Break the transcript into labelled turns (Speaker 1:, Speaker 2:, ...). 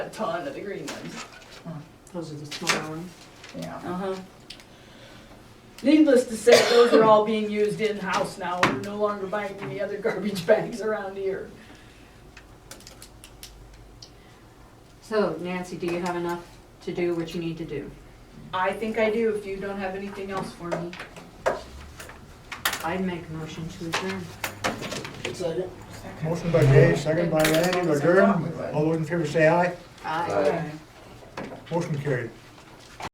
Speaker 1: a ton of the green ones.
Speaker 2: Those are the smaller ones.
Speaker 1: Yeah. Uh-huh. Needless to say, those are all being used in-house now, we're no longer buying any other garbage bags around here.
Speaker 2: So Nancy, do you have enough to do what you need to do?
Speaker 1: I think I do, if you don't have anything else for me.
Speaker 2: I'd make a motion to adjourn.
Speaker 3: Motion by Dave, second by Randy, to adjourn. All those in favor say aye.
Speaker 2: Aye.
Speaker 1: Okay.
Speaker 3: Motion carried.